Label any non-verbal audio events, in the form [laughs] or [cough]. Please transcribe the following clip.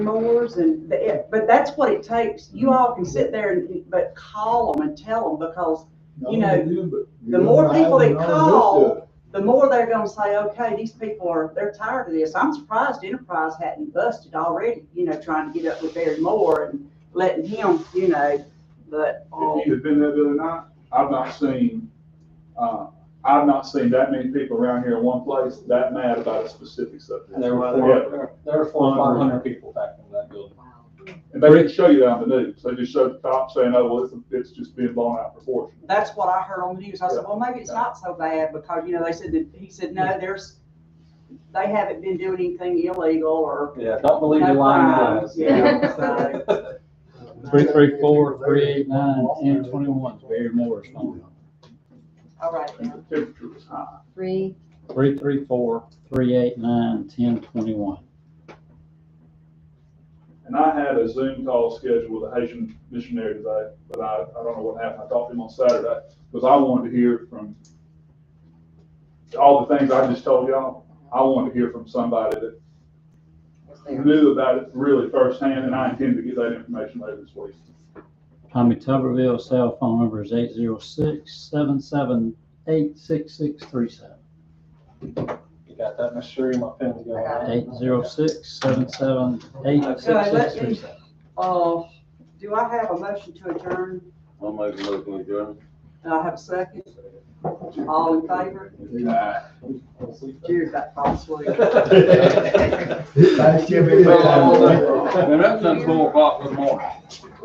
mowers and, the- yeah, but that's what it takes. You all can sit there and, but call them and tell them because You know, the more people that call, the more they're gonna say, okay, these people are, they're tired of this. I'm surprised Enterprise hadn't busted already, you know, trying to get up with Barry Moore and letting him, you know, but, um, If you had been there the other night, I've not seen, uh, I've not seen that many people around here in one place that mad about a specific subject. There were, there Yeah. were, there were four, five hundred people back in that building. And they didn't show you that on the news, they just showed the top saying, oh, well, it's, it's just being blown out of proportion. that's what I heard on the news. I said, well, maybe it's not so bad because, you know, they said that, he said, no, there's, they haven't been doing anything illegal or. Yeah, don't believe the lying eyes. Yeah, so, Three, three, four, three, eight, nine, ten, twenty-one, Barry Moore's phone. All right. And the temperature was high. Three, Three, three, four, three, eight, nine, ten, twenty-one. And I had a Zoom call scheduled with a Haitian missionary today, but I, I don't know what happened. I talked to him on Saturday, because I wanted to hear from all the things I just told y'all, I wanted to hear from somebody that knew about it really firsthand, and I intend to get that information later this week. Tommy Tuberville's cell phone number is eight zero six, seven, seven, eight, six, six, three, seven. [laughs] You got that, Miss Sheree, my pen's going out. Eight zero six, seven, seven, eight, six, six, three, seven. Uh, do I have a motion to adjourn? I'll make a motion with you. Do I have a second? All in favor? Cheers, that false way. And [laughs] that's done four o'clock in the morning.